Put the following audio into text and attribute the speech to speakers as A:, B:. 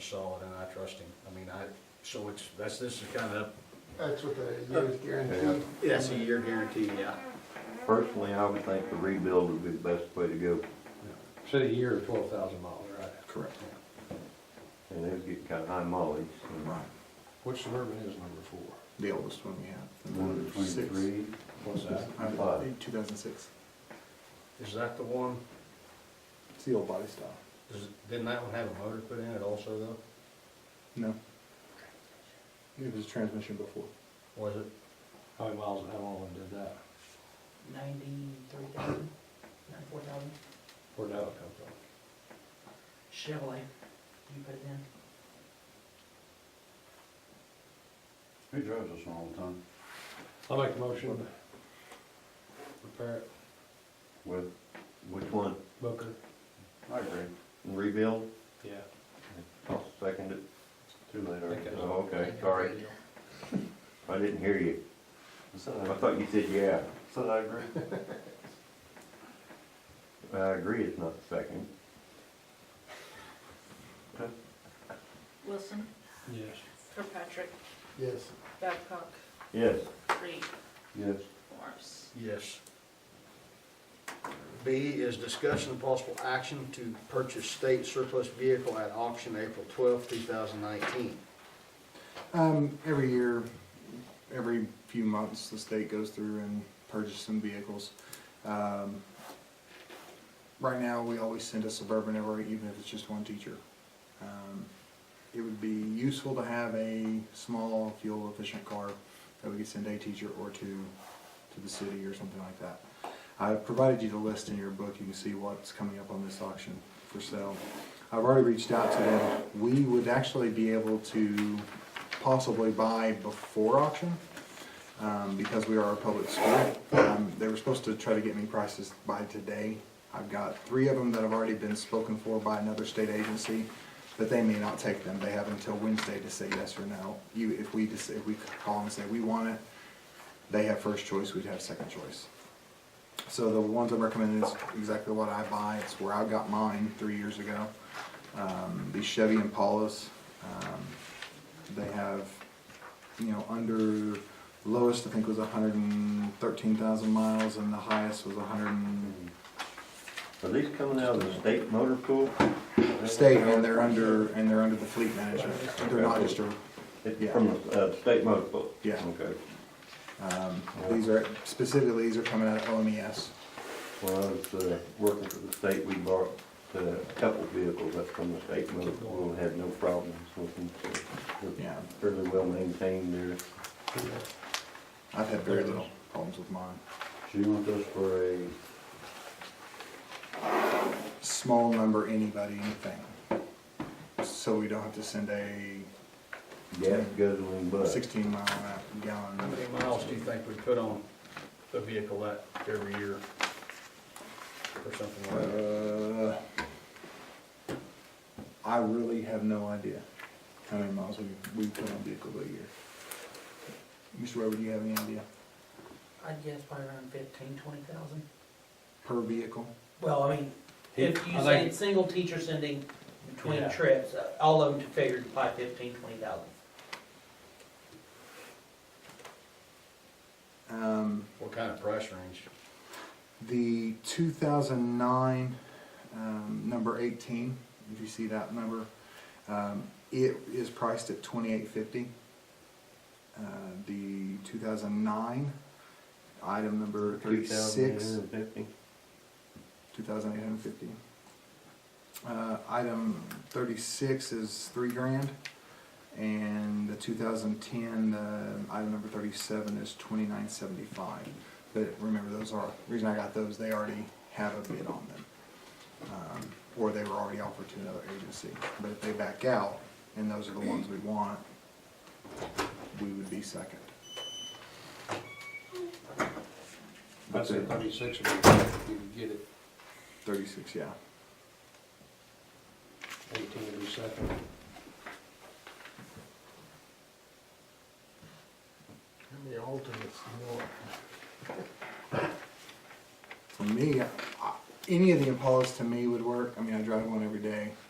A: solid and I trust him. I mean, I, so it's, that's, this is kind of,
B: That's what the
C: Uh,
B: year's guarantee.
D: Yeah.
A: that's a year guarantee, yeah.
D: Personally, I would think the rebuild would be the best way to go,
C: Said a year or twelve thousand miles, right?
E: Correct.
D: and it would get kind of high mileage. and-
E: Right.
C: Which Suburban is number four?
E: The oldest one we have. the
F: One between
E: six.
F: three,
C: What's that?
E: I
D: and five.
E: think 2006.
A: Is that the one,
E: It's the old body style.
A: does- didn't that one have a motor put in it also though?
E: No. It was a transmission before.
A: Was it?
C: How many miles, how long did that,
G: ninety-three thousand, ninety-four thousand,
C: where'd that come from?
G: Chevrolet, you put it in.
F: he drives this one all the time
C: I'll make a motion. Repair it,
D: With, which one?
C: Booker.
F: I agree.
D: Rebuild?
C: Yeah.
D: I'll second it.
F: Too late
C: already.
D: Oh, okay, sorry. I didn't hear you.
F: I said I
D: I thought you said yeah.
F: said I agree.
D: I agree, it's not second.
H: Wilson,
C: Yes.
H: Kirkpatrick,
B: Yes.
H: Babcock,
D: Yes.
H: Reed,
D: Yes.
H: Morris.
A: Yes. B is discussion of possible action to purchase state surplus vehicle at auction April twelfth, two thousand nineteen.
E: Um, every year, every few months, the state goes through and purchases some vehicles. Um, right now, we always send a Suburban over, even if it's just one teacher. Um, it would be useful to have a small, fuel-efficient car that we could send a teacher or two to the city or something like that. I've provided you the list in your book. You can see what's coming up on this auction for sale. I've already reached out to them. We would actually be able to possibly buy before auction um, because we are a public school. Um, They were supposed to try to get me prices by today. I've got three of them that have already been spoken for by another state agency, but they may not take them. They have until Wednesday to say yes or no. You, if we, just- if we call and say we want it, they have first choice, we'd have second choice. So the ones I'm recommending is exactly what I buy. It's where I got mine three years ago. Um, these Chevy Impalas, um, they have, you know, under lowest I think was 113,000 miles, and the highest was 100 and-
D: Are these coming out of the state motor pool?
E: state, and they're under and they're under the fleet management. They're not just um, a
D: It's from the uh, state motor pool?
E: Yeah.
D: Okay.
E: um, these are specifically these are coming out of E OMES.
D: When I was uh, working for the state, we bought uh, a couple vehicles up from the state motor pool and had no problems with them. so they're
E: Yeah.
D: Fairly well maintained there.
E: I've had very little problems with mine.
D: Do you want those for a
E: small number, anybody, anything. So we don't have to send a
D: gas guzzling bus?
E: sixteen mile an hour gallon.
A: How many miles do you think we put on a vehicle that every year? Or something like that?
E: Uh, I really have no idea how many miles we, we put on vehicle a year. Mr. Weber, do you have any idea?
G: I'd guess probably around fifteen, twenty thousand.
E: Per vehicle?
G: Well, I mean, if you
C: I
G: say
C: think-
G: it's single teacher sending between
C: Yeah.
G: trips, uh, all of them to figure to probably fifteen, twenty thousand.
E: Um,
A: What kind of price range?
E: The 2009, um, number 18, if you see that number, um, it is priced at 2850. Uh, the 2009, item number 36,
D: 2,850?
E: 2850. Uh, item 36 is three grand, and the 2010, uh, item number 37 is 2975. But remember, those are, the reason I got those, they already have a bid on them. Um, Or they were already offered to another agency. But if they back out, and those are the ones we want, we would be second.
C: I said thirty-six would be, good if you could get it,
E: 36, yeah.
C: eighteen would be second.
B: And the alternates, you know,
E: uh, For me, I- any of the Impalas to me would work. I mean, I drive one every day. Um,